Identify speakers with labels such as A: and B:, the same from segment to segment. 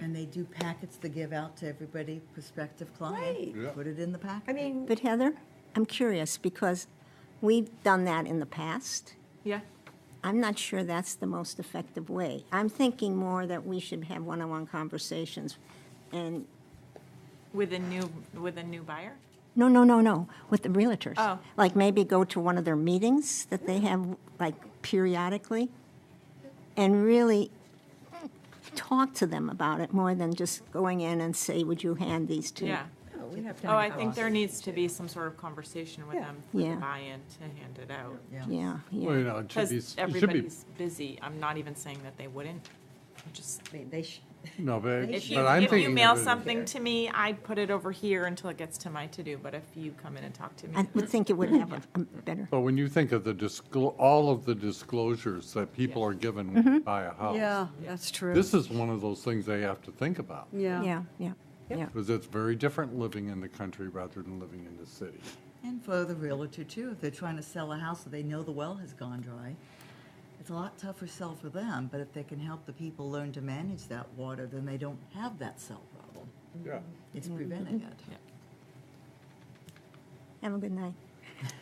A: And they do packets to give out to everybody, prospective client.
B: Right.
C: Yeah.
A: Put it in the packet.
B: I mean,
D: But Heather, I'm curious because we've done that in the past.
E: Yeah.
D: I'm not sure that's the most effective way. I'm thinking more that we should have one-on-one conversations and,
E: With a new, with a new buyer?
D: no, no, no, no, with the realtors.
E: Oh.
D: Like maybe go to one of their meetings that they have like periodically and really talk to them about it more than just going in and say, would you hand these to? me?"
E: Yeah.
B: no, we have to.
E: Oh, I think there needs to be some sort of conversation with
B: Yeah.
E: them for the
D: Yeah.
E: buy-in to hand it out.
D: Yeah,
C: Well, you
D: yeah.
C: know, it should
E: Because
C: be, it should be,
E: everybody's busy. I'm not even saying that they wouldn't. I'm Just,
B: I mean, They should,
C: no, but,
E: if you,
C: but I'm
E: if
C: thinking.
E: you mail
C: of it-
E: something to me, I put it over here until it gets to my to-do, but if you come in and talk to me.
D: I would think it would have a a better,
C: But when you think of the disclo, all of the disclosures that people are given when they buy a house.
F: Mm-hmm. Yeah, that's true.
C: This is one of those things they have to think about.
F: Yeah.
D: yeah, yeah, yeah.
C: Because it's very different living in the country rather than living in the city.
A: And for the realtor too, if they're trying to sell a house that they know the well has gone dry, it's a lot tougher sell for them, but if they can help the people learn to manage that water, then they don't have that cell problem.
F: Mm-hmm.
C: Yeah.
A: It's preventing it.
D: Have a good night.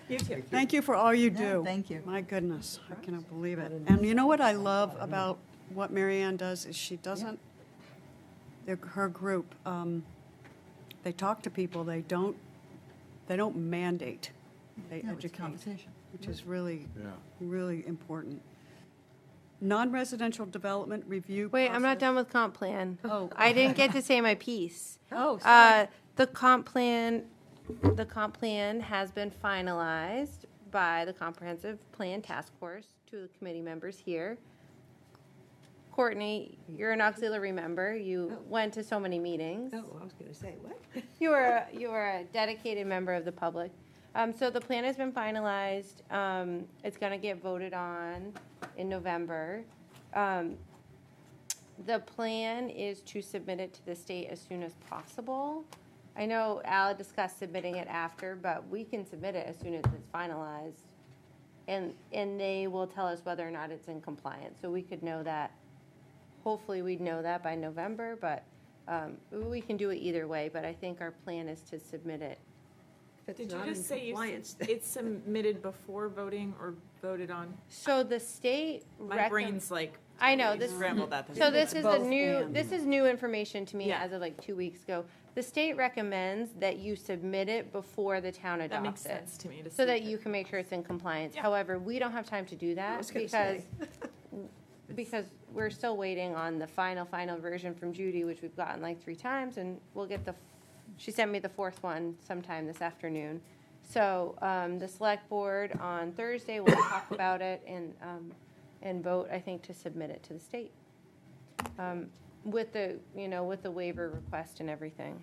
E: You too.
F: Thank you for all you
A: Yeah,
F: do.
A: thank you.
F: My goodness, I cannot believe it. And you know what I love about what Marianne does is she doesn't, their- her group, um, they talk to people, they don't, they don't mandate, they
A: No, it's
F: educate,
A: conversation.
F: which is really,
C: Yeah.
F: really important. Non-residential development review.
G: Wait, I'm not
F: process.
G: done with comp plan.
F: Oh.
G: I didn't get to say my piece.
F: Oh, sorry.
G: Uh, the comp plan, the comp plan has been finalized by the Comprehensive Plan Task Force to the committee members here. Courtney, you're an auxiliary member. You went to so many meetings.
B: oh, I was going to say, what?
G: You are, you are a dedicated member of the public. Um, so the plan has been finalized. Um, it's gonna get voted on in November. Um, the plan is to submit it to the state as soon as possible. I know Al discussed submitting it after, but we can submit it as soon as it's finalized. And, and they will tell us whether or not it's in compliance, so we could know that. Hopefully, we'd know that by November, but, um, we can do it either way, but I think our plan is to submit it.
B: If
E: Did
B: it's
E: you
B: not in
E: just say you,
B: compliance,
E: s-
B: then-
E: it's submitted before voting or voted on?
G: So the state
E: My
G: recommends.
E: brain's like.
G: I know,
E: totally
G: this-
E: Scrambled at this.
G: So this
F: It's
G: is a
F: both
G: new,
F: and.
G: this is new information to me
E: Yeah.
G: as of like two weeks ago. The state recommends that you submit it before the town
E: That makes
G: adopts it.
E: sense to me to see.
G: So that you can make sure it's in compliance.
E: Yeah.
G: However, we don't have time to do that
B: was gonna
G: because, because we're still waiting on the final, final version from Judy, which we've gotten like three times, and we'll get the, she sent me the fourth one sometime this afternoon. So um, the select board on Thursday will talk about it and, um, and vote, I think, to submit it to the state. Um, With the, you know, with the waiver request and everything.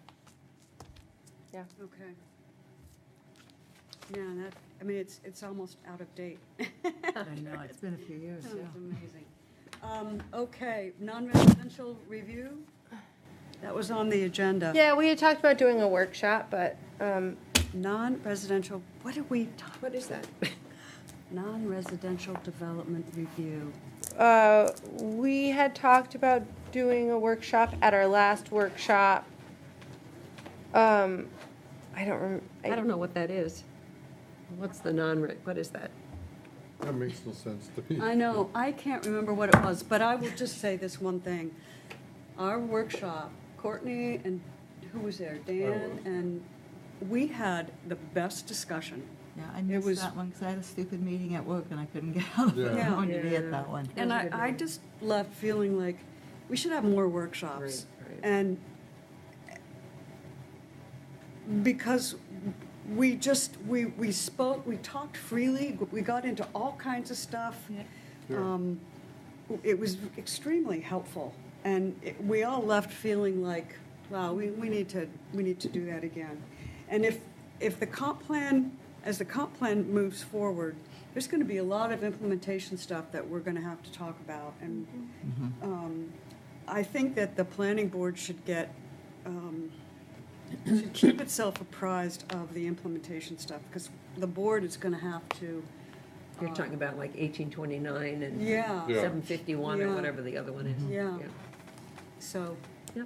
G: Yeah.
F: Okay. Yeah, and that, I mean, it's, it's almost out of date.
A: I know, it's been a few years,
F: That
A: yeah.
F: was amazing. Um, Okay, non-residential review, that was on the agenda.
G: Yeah, we had talked about doing a workshop, but um,
F: Non-residential, what did we talk,
B: What is that?
F: non-residential development review?
G: Uh, we had talked about doing a workshop at our last workshop. Um, I don't rem-
B: I don't know what that is. What's the non-reg, what is that?
C: That makes no sense to
F: I know, I can't remember what it was, but I will just say this one thing. Our workshop, Courtney and, who was there, Dan, and we had the best discussion.
A: Yeah, I missed
F: was-
A: that one because I had a stupid meeting at work and I couldn't get out of it. I
F: Yeah.
A: wanted to be
B: Yeah.
A: at that one.
F: And
B: was a
F: I,
B: good
F: I
B: one.
F: just left feeling like we should have more workshops.
B: Right, right.
F: And because we just, we, we spoke, we talked freely, we got into all kinds of stuff. Um, It was extremely helpful. And it- we all left feeling like, wow, we, we need to, we need to do that again. And if, if the comp plan, as the comp plan moves forward, there's going to be a lot of implementation stuff that we're going to have to talk about. And um, I think that the planning board should get, um, should keep itself apprised of the implementation stuff because the board is going to have to,
B: You're talking about like 1829 and
F: yeah.
C: Yeah.
B: 751
F: Yeah.
B: or whatever the other one is.
F: Yeah. So